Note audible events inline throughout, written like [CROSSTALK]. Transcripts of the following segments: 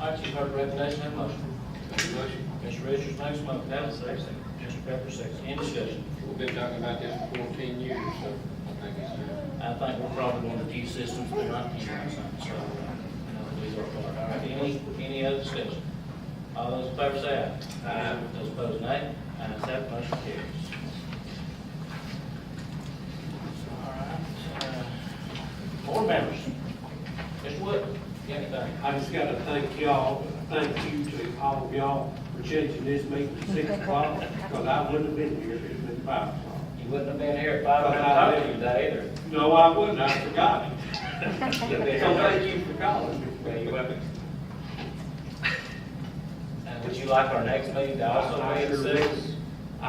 All right, you've heard the recommendation, have a motion. Motion. Mr. Richards makes a motion, have a second. Mr. Pepper seconds, any discussion? We've been talking about this for fourteen years, so I think it's time. I think we're probably one of the few systems we're not using, so, uh, you know, we work hard. All right, any, any other discussion? All those in favor say aye. Aye. Those opposed, nay. Ayes have, it, motion carries. All right, uh, board members. Mr. Wood, you got anything? I just gotta thank y'all, thank you to all of y'all for changing this meeting to six o'clock, because I wouldn't have been here if it'd been five o'clock. You wouldn't have been here if I would have talked to you today either. No, I wouldn't, I forgot it. You'd have been So here. thank you for calling me. Yeah, you're welcome. [LAUGHS] And would you like our next meeting to also be I at sure six? would. I,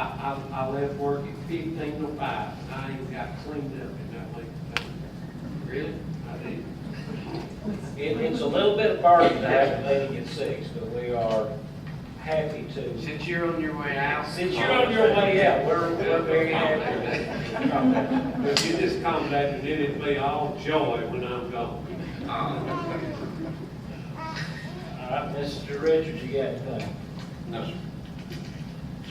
I, I left work at fifteen to five, and I even got cleaned up in that late. Really? I did. It, it's a little bit of burden to have a meeting at six, but we are happy to. Since you're on your way out. Since you're on your way out, we're, we're very happy. to- [LAUGHS] But you just contacted, it it'd be all joy when I'm gone. All right, Mr. Richards, you got anything? No, sir.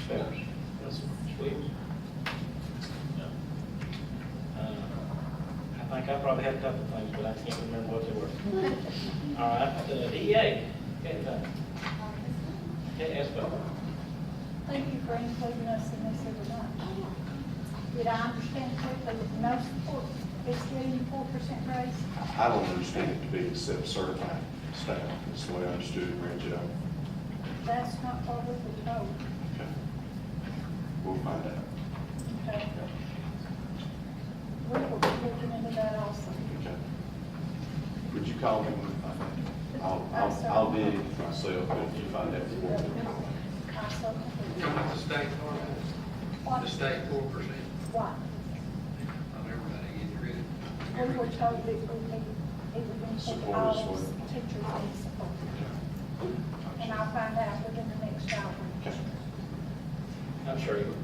Spears? That's Spears? No. Uh, I think I probably had a couple things, but I can't remember what they were. All right, uh, DEA, anything? uh, Okay, Espo? Thank you for including us in this every night. Did I understand correctly that no support, it's getting four percent raise? I don't understand it to be except certified staff, that's the way I understood it, Reggie, I, That's not what we were told, okay. We'll find out, okay? We will be looking into that also. okay. Would you call me when you find out? I'll, I'll, I'll be in myself if you find out. I so Come conclude. with the state four, the What, state four percent what? on everybody getting rid We of. were told that we need, it would include Support all is those what- teachers and support. And I'll find out within the next hour. Okay. I'm sure you.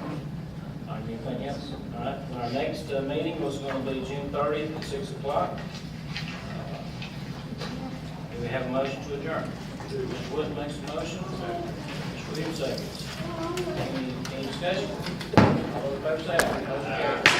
All right, anything else? All right, our next uh, meeting was going to be June thirtieth at six o'clock. Do we have a motion to adjourn? Mr. Wood makes a motion. Mr. Williams seconds. Any, any discussion? All those in favor say aye. Motion carries.